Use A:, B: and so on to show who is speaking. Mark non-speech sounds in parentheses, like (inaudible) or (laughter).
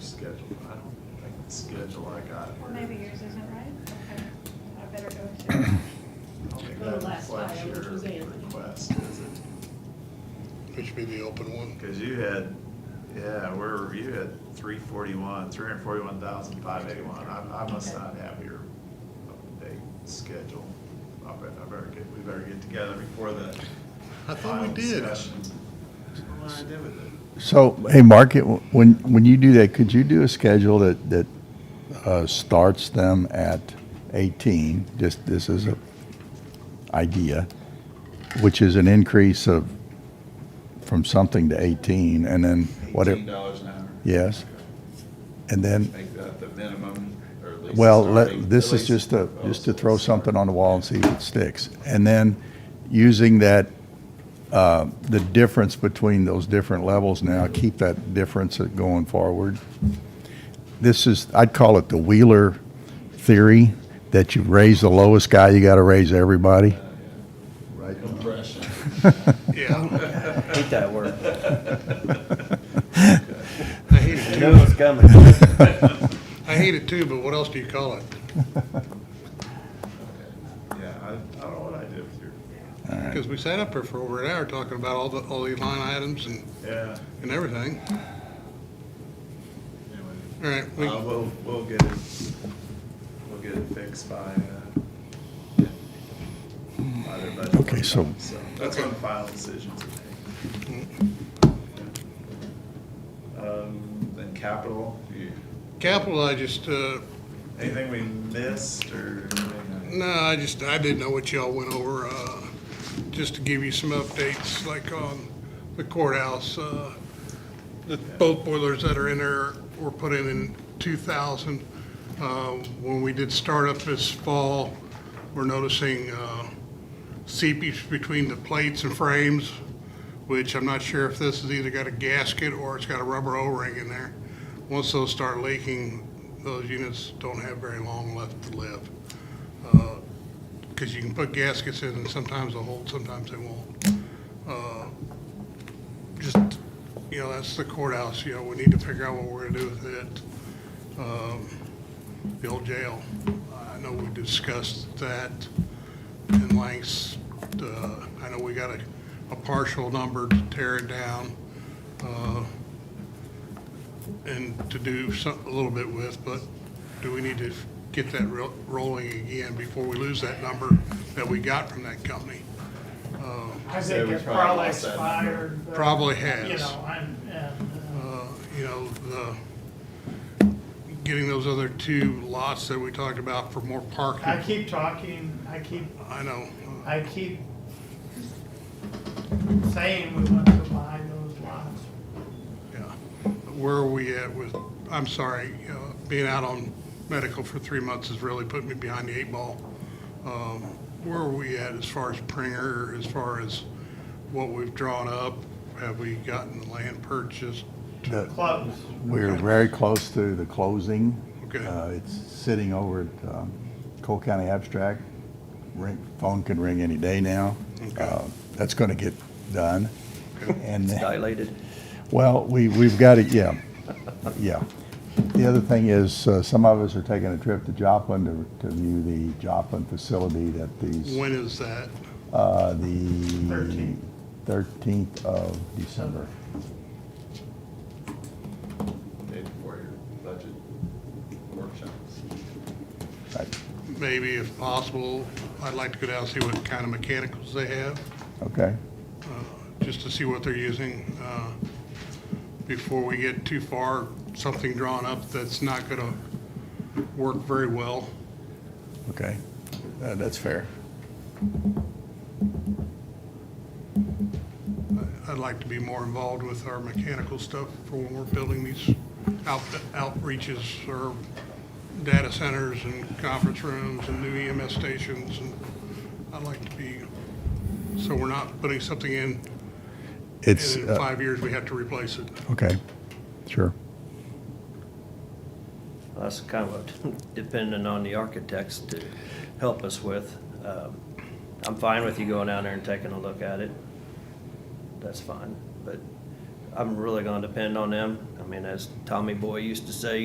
A: schedule I got.
B: Well,
A: here.
B: maybe yours isn't right. Okay, I better go to.
A: I'll make
C: Go
A: that
C: to last
A: flash
C: file, which
A: your
C: was Anthony.
A: Request, is it?
D: Which should be the open one.
A: Because you had, yeah, we're, you had three forty-one, three hundred forty-one thousand five eighty-one. I, I must
C: Okay.
A: not have your up-to-date schedule. I bet, I better get, we better get together before the
D: I thought we
A: final
D: did.
A: discussion. What do I do with it?
E: So, hey, Mark, it- when, when you do that, could you do a schedule that, that uh, starts them at 18? Just, this is a idea, which is an increase of, from something to 18, and then
A: Eighteen
E: whatever,
A: dollars an hour.
E: yes. And then,
A: Make that the minimum, or at least.
E: well,
A: the
E: let,
A: starting-
E: this
A: at
E: is
A: least
E: just
A: the
E: to, just to
A: proposal.
E: throw something on the wall and see if it sticks. And then, using that, uh, the difference between those different levels now, keep that difference going forward. This is, I'd call it the Wheeler theory, that you raise the lowest guy, you gotta raise everybody.
A: Right.
E: (laughs)
A: Compression.
D: Yeah,
F: Hate that word.
D: I hate it
F: Knew it was
D: too.
F: coming.
D: I hate it too, but what else do you call it?
A: Yeah, I, I don't know what I did with your,
D: Because we sat up here for over an hour talking about all the, all the line items and,
A: yeah,
D: and everything.
A: anyway.
D: All right, we,
A: Uh, we'll, we'll get it, we'll get it fixed by, uh, by their budget.
E: Okay, so-
A: workshop, That's when final decisions are
D: Mm-hmm.
A: made. Um, then capital, you-
D: capital, I just, uh,
A: anything we missed or anything?
D: no, I just, I didn't know what y'all went over. Uh, just to give you some updates, like on the courthouse, uh, the, both boilers that are in there were put in in two thousand. Uh, when we did startup this fall, we're noticing, uh, seepage between the plates and frames, which I'm not sure if this has either got a gasket or it's got a rubber O-ring in there. Once those start leaking, those units don't have very long left to live. Because Uh, you can put gaskets in and sometimes they'll hold, sometimes they won't. Uh, Just, you know, that's the courthouse, you know, we need to figure out what we're gonna do with it. Um, The old jail, I know we discussed that in lengths. Uh, I know we got a, a partial number to tear it down, uh, and to do some, a little bit with, but do we need to get that ro- rolling again before we lose that number that we got from that company?
G: I
A: They
G: think
A: were probably
G: it probably
A: lost that number.
G: expired. but,
D: Probably
G: You
D: has.
G: know, I'm, and, uh,
D: Uh, You know, the, getting those other two lots that we talked about for more
G: I
D: parking,
G: keep talking, I keep,
D: I know. Uh,
G: I keep saying we want to buy those lots.
D: Yeah. Where are we at with, I'm sorry, uh, being out on medical for three months has really put me behind the eight ball. Um, Where are we at as far as Pringer, as far as what we've drawn up? Have we gotten the land purchased?
E: The-
G: Close.
E: We're very close to the closing.
D: Okay.
E: Uh, It's sitting over at um, Cole County Abstract. Ring, phone can ring any day now.
D: Okay.
E: Uh, That's going to get done. And,
F: It's
E: then-
F: dilated.
E: well, we, we've got it, yeah, yeah. The other thing is, uh, some of us are taking a trip to Joplin to, to view the Joplin facility that these,
D: When is that?
E: uh, the
G: Thirteenth.
E: 13th of December.
A: Day before your budget workshops.
E: Right,
D: Maybe if possible, I'd like to go down and see what kind of mechanicals they have.
E: okay?
D: just to see what they're using, uh, before we get too far, something drawn up that's not gonna work very well.
E: Okay, Uh, that's fair.
D: I- I'd like to be more involved with our mechanical stuff for when we're building these out, outreaches or data centers and conference rooms and new EMS stations, and I'd like to be, so we're not putting something in, and
E: It's,
D: in
E: uh,
D: five years, we have to replace it.
E: okay, sure.
F: That's kind of (laughs) what depending on the architects to help us with. Um, I'm fine with you going down there and taking a look at it. That's fine, but I'm really gonna depend on them. I mean, as Tommy Boy used to say,